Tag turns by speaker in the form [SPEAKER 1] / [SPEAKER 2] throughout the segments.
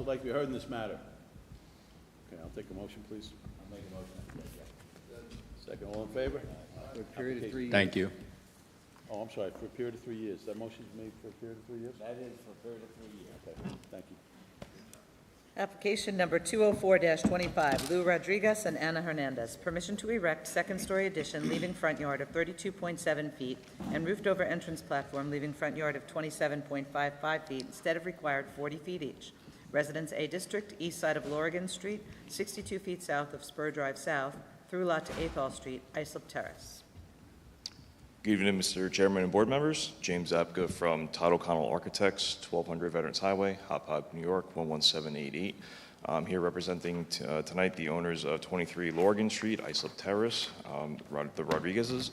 [SPEAKER 1] would like to be heard in this matter? Okay, I'll take a motion, please. I'll make a motion. Second, all in favor?
[SPEAKER 2] For a period of three years.
[SPEAKER 3] Thank you.
[SPEAKER 1] Oh, I'm sorry, for a period of three years. That motion's made for a period of three years? That is for a period of three years. Okay, thank you.
[SPEAKER 4] Application number 204-25, Lou Rodriguez and Ana Hernandez. Permission to erect second-story addition, leaving front yard of 32.7 feet, and roofed-over entrance platform, leaving front yard of 27.55 feet instead of required 40 feet each. Residence A District, east side of Lorigan Street, 62 feet south of Spur Drive South, through lot to Athol Street, Islip Terrace.
[SPEAKER 5] Good evening, Mr. Chairman and board members. James Apka from Todd O'Connell Architects, 1200 Veterans Highway, Hop Hop, New York, 11788. I'm here representing t- uh, tonight the owners of 23 Lorgan Street, Islip Terrace, um, Rod- the Rodriguezes.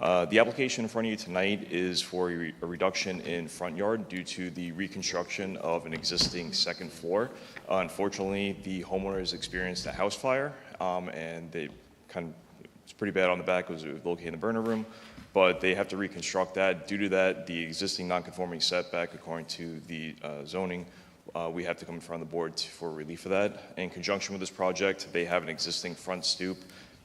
[SPEAKER 5] Uh, The application in front of you tonight is for a re- a reduction in front yard due to the reconstruction of an existing second floor. Uh, Unfortunately, the homeowner has experienced a house fire, um, and they kind of it's pretty bad on the back, it was located in the burner room, but they have to reconstruct that. Due to that, the existing non-conforming setback, according to the uh, zoning, uh, we have to come in front of the board to- for relief of that. In conjunction with this project, they have an existing front stoop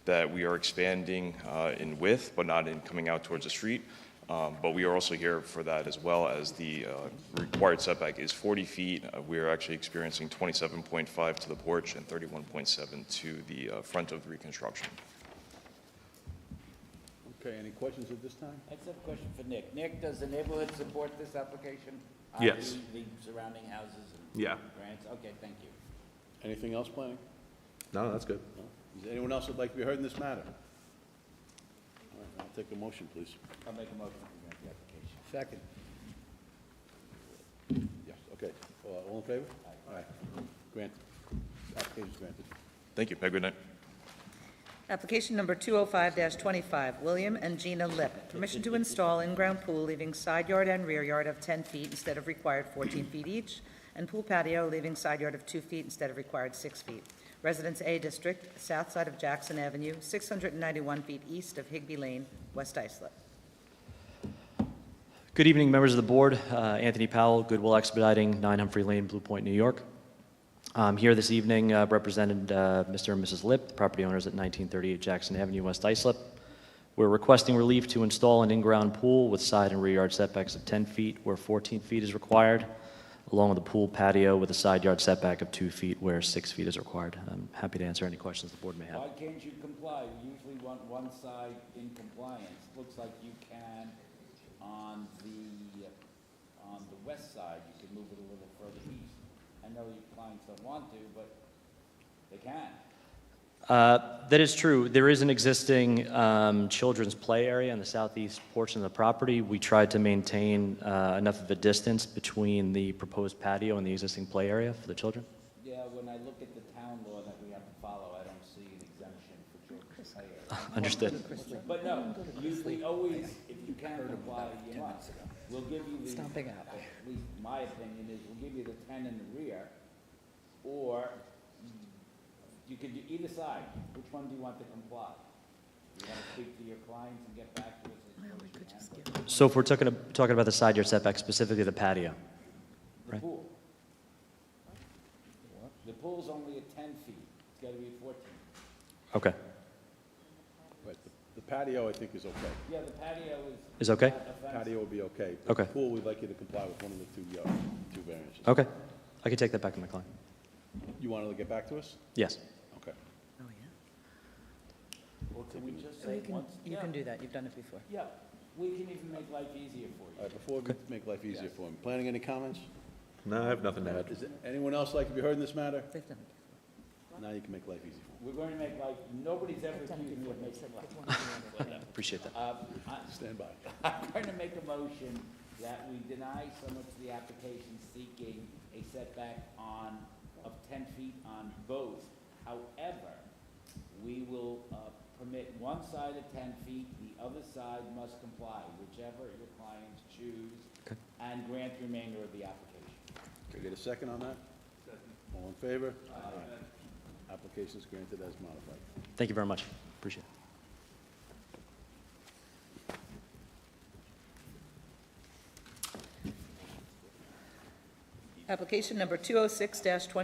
[SPEAKER 5] that we are expanding uh, in width, but not in coming out towards the street. Um, But we are also here for that as well, as the uh, required setback is 40 feet. Uh, We are actually experiencing 27.5 to the porch and 31.7 to the uh, front of the reconstruction.
[SPEAKER 1] Okay, any questions at this time?
[SPEAKER 6] I just have a question for Nick. Nick, does the neighborhood support this application?
[SPEAKER 3] Yes.
[SPEAKER 6] i.e. The surrounding houses and
[SPEAKER 3] Yeah.
[SPEAKER 6] grants? Okay, thank you.
[SPEAKER 1] Anything else planning?
[SPEAKER 3] No, that's good.
[SPEAKER 1] No? Is there anyone else that'd like to be heard in this matter? All right, I'll take a motion, please.
[SPEAKER 6] I'll make a motion to grant the application.
[SPEAKER 2] Second.
[SPEAKER 1] Yes, okay. Uh, All in favor? Aye. Granted. Application's granted.
[SPEAKER 5] Thank you. Have a good night.
[SPEAKER 4] Application number 205-25, William and Gina Lip. Permission to install in-ground pool leaving side yard and rear yard of 10 feet instead of required 14 feet each, and pool patio leaving side yard of 2 feet instead of required 6 feet. Residence A District, south side of Jackson Avenue, 691 feet east of Higby Lane, West Islip.
[SPEAKER 7] Good evening, members of the board. Uh, Anthony Powell, Goodwill Expediting, 9 Humphrey Lane, Blue Point, New York. I'm here this evening uh, represented uh, Mr. and Mrs. Lip, the property owners at 1938 Jackson Avenue, West Islip. We're requesting relief to install an in-ground pool with side and rear yard setbacks of 10 feet where 14 feet is required, along with a pool patio with a side yard setback of 2 feet where 6 feet is required. I'm happy to answer any questions the board may have.
[SPEAKER 6] Why can't you comply? We usually want one side in compliance. Looks like you can on the, on the west side, you can move it a little further east. I know your clients don't want to, but they can.
[SPEAKER 7] Uh, That is true. There is an existing um, children's play area in the southeast portion of the property. We tried to maintain uh, enough of a distance between the proposed patio and the existing play area for the children.
[SPEAKER 6] Yeah, when I look at the town law that we have to follow, I don't see an exemption for children's play area.
[SPEAKER 7] Understood.
[SPEAKER 6] But no, you, we always, if you can't comply, you must. We'll give you the. Stomping out. At least my opinion is, we'll give you the ten in the rear, or you could do either side. Which one do you want to comply? You want to speak to your clients and get back to us as soon as you can?
[SPEAKER 7] So if we're talking, talking about the side yard setback, specifically the patio,
[SPEAKER 6] The
[SPEAKER 7] Right.
[SPEAKER 6] pool. The pool's only at ten feet. It's gotta be fourteen.
[SPEAKER 7] okay,
[SPEAKER 1] Right, the- the patio, I think, is okay.
[SPEAKER 6] Yeah, the patio is.
[SPEAKER 7] Is okay?
[SPEAKER 6] not a fence.
[SPEAKER 1] Patio will be okay. but
[SPEAKER 7] Okay.
[SPEAKER 1] Pool, we'd like you to comply with one of the two, uh, two variances.
[SPEAKER 7] okay. I can take that back to my client.
[SPEAKER 1] You want to get back to us?
[SPEAKER 7] Yes.
[SPEAKER 1] Okay.
[SPEAKER 4] Oh,
[SPEAKER 6] Well, can we just
[SPEAKER 4] yeah.
[SPEAKER 6] say once? yeah.
[SPEAKER 4] do that. You've done it before.
[SPEAKER 6] Yeah, we can even make life easier for you.
[SPEAKER 1] All right, before we make life easier for him, planning any comments?
[SPEAKER 3] No, I have nothing to add.
[SPEAKER 1] Is anyone else like to be heard in this matter? Now you can make life easy for
[SPEAKER 6] We're going to make life, nobody's ever accused me of making life.
[SPEAKER 7] Appreciate that.
[SPEAKER 6] Uh, I-
[SPEAKER 1] him. Stand by.
[SPEAKER 6] I'm going to make a motion that we deny someone to the application seeking a setback on, of ten feet on both. However, we will uh, permit one side at ten feet, the other side must comply, whichever your clients choose, and grant the remainder of the application.
[SPEAKER 1] Can I get a second on that? All in favor? Aye. Application's granted as modified.
[SPEAKER 7] Thank you very much. Appreciate it.
[SPEAKER 4] oh Application number 206-25,